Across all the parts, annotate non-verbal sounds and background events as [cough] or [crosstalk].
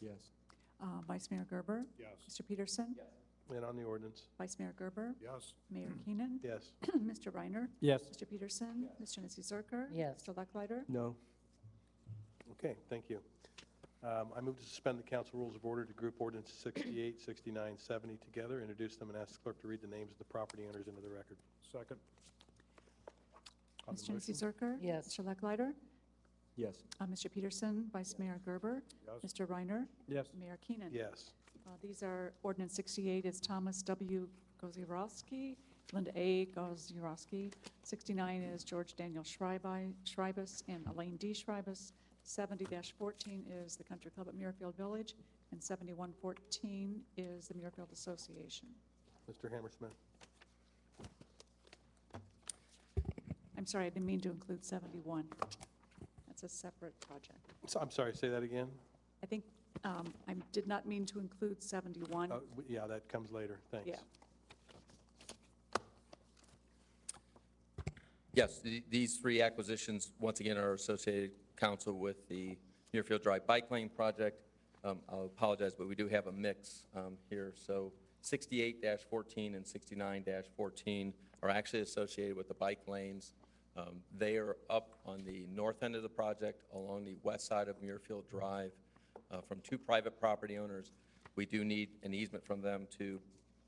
Yes. Uh, Vice Mayor Gerber? Yes. Mr. Peterson? Yes. And on the ordinance? Vice Mayor Gerber? Yes. Mayor Keenan? [clears throat] Yes. Mr. Reiner? Yes. Mr. Peterson? Mr. Nancy Zerker? Yes. Mr. Lucklider? No. Okay, thank you. Um, I move to suspend the council rules of order to group ordinance 68, 69, 70 together, introduce them, and ask clerk to read the names of the property owners into the record. Second. On the Mr. Nancy motion? Zerker? Yes. Mr. Lucklider? Yes. Uh, Mr. Peterson? Vice Mayor Gerber? Yes. Mr. Reiner? Yes. Mayor Keenan? Yes. Uh, These are ordinance 68 is Thomas W. Gozierowski, Linda A. Gozierowski. 69 is George Daniel Schreibi- Schreibus and Elaine D. Schreibus. 70-14 is the Country Club at Muirfield Village, and 7114 is the Muirfield Association. Mr. Hammersmith? I'm sorry, I didn't mean to include 71. That's a separate project. So- I'm sorry, say that again? I think um, I did not mean to include 71. Oh, w- Yeah, that comes later, thanks. Yeah. Yes, the- these three acquisitions, once again, are associated, council, with the Muirfield Drive Bike Lane project. Um, I apologize, but we do have a mix um, here. So 68-14 and 69-14 are actually associated with the bike lanes. Um, They are up on the north end of the project, along the west side of Muirfield Drive, uh, from two private property owners. We do need an easement from them to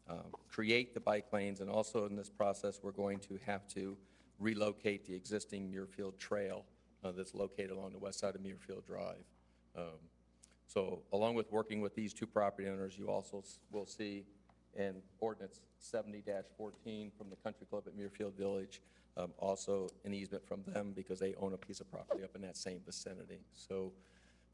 um, create the bike lanes, and also in this process, we're going to have to relocate the existing Muirfield Trail uh, that's located along the west side of Muirfield Drive. Um, So along with working with these two property owners, you also s- will see in ordinance 70-14 from the Country Club at Muirfield Village, um, also an easement from them because they own a piece of property up in that same vicinity. So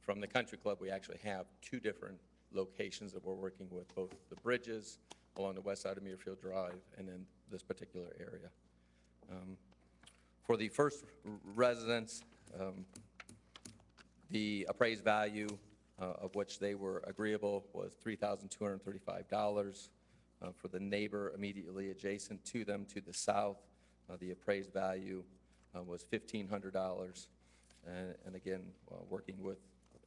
from the country club, we actually have two different locations that we're working with, both the bridges along the west side of Muirfield Drive and then this particular area. Um, For the first r- residents, um, the appraised value uh, of which they were agreeable was $3,235. Uh, For the neighbor immediately adjacent to them to the south, uh, the appraised value uh, was $1,500. And and again, uh, working with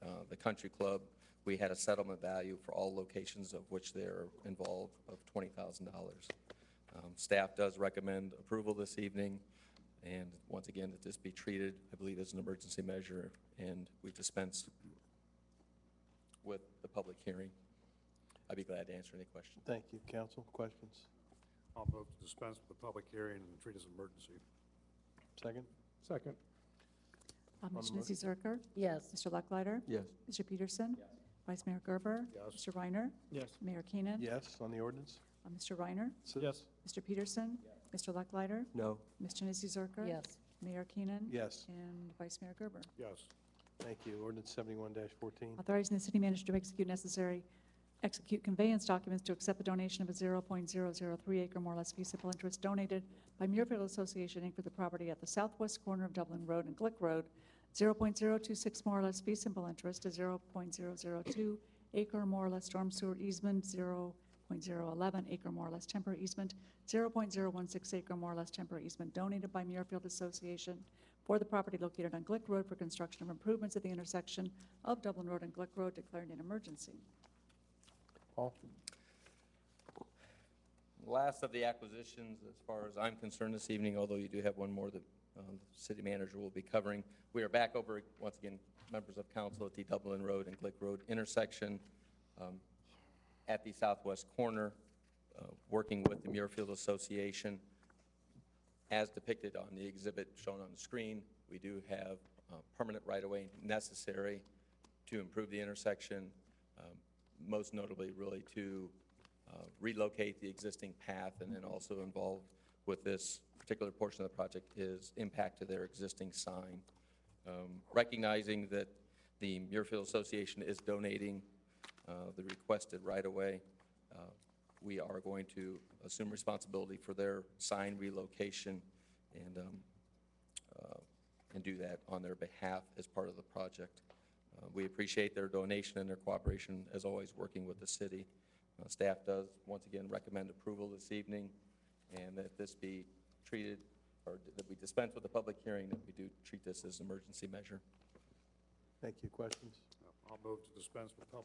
uh, the country club, we had a settlement value for all locations of which they're involved of $20,000. Um, Staff does recommend approval this evening, and once again, that this be treated, I believe, as an emergency measure, and we dispense with the public hearing. I'd be glad to answer any questions. Thank you. Council, questions? I'll vote to dispense with the public hearing and treat as an emergency. Second? Second. Uh, the Mr. Nancy Zerker? Yes. Mr. Lucklider? Yes. Mr. Peterson? Vice Mayor Gerber? Yes. Mr. Reiner? Yes. Mayor Keenan? Yes, on the ordinance? Uh, Mr. Reiner? Yes. Mr. Peterson? Mr. Lucklider? No. Mr. Nancy Zerker? Yes. Mayor Keenan? Yes, And Vice Mayor Gerber. Yes. thank you. Ordinance 71-14. Authorizing the city manager to execute necessary, execute conveyance documents to accept the donation of a 0.003 acre more or less feasible interest donated by Muirfield Association Inc. for the property at the southwest corner of Dublin Road and Glick Road, 0.026 more or less feasible interest to 0.002 acre more or less storm sewer easement, 0.011 acre more or less temporary easement, 0.016 acre more or less temporary easement donated by Muirfield Association for the property located on Glick Road for construction of improvements at the intersection of Dublin Road and Glick Road, declaring an emergency. Paul? Last of the acquisitions, as far as I'm concerned this evening, although you do have one more that um, the city manager will be covering. We are back over, once again, members of council at the Dublin Road and Glick Road intersection um, at the southwest corner, uh, working with the Muirfield Association. As depicted on the exhibit shown on the screen, we do have uh, permanent right-of-way necessary to improve the intersection, um, most notably really to uh, relocate the existing path, and then also involved with this particular portion of the project is impact to their existing sign. Um, Recognizing that the Muirfield Association is donating uh, the requested right-of-way, uh, we are going to assume responsibility for their sign relocation and, um, uh, and do that on their behalf as part of the project. Uh, We appreciate their donation and their cooperation, as always, working with the city. Uh, Staff does, once again, recommend approval this evening, and that this be treated, or that we dispense with the public hearing, that we do treat this as an emergency measure. Thank you. Questions? I'll move to dispense with public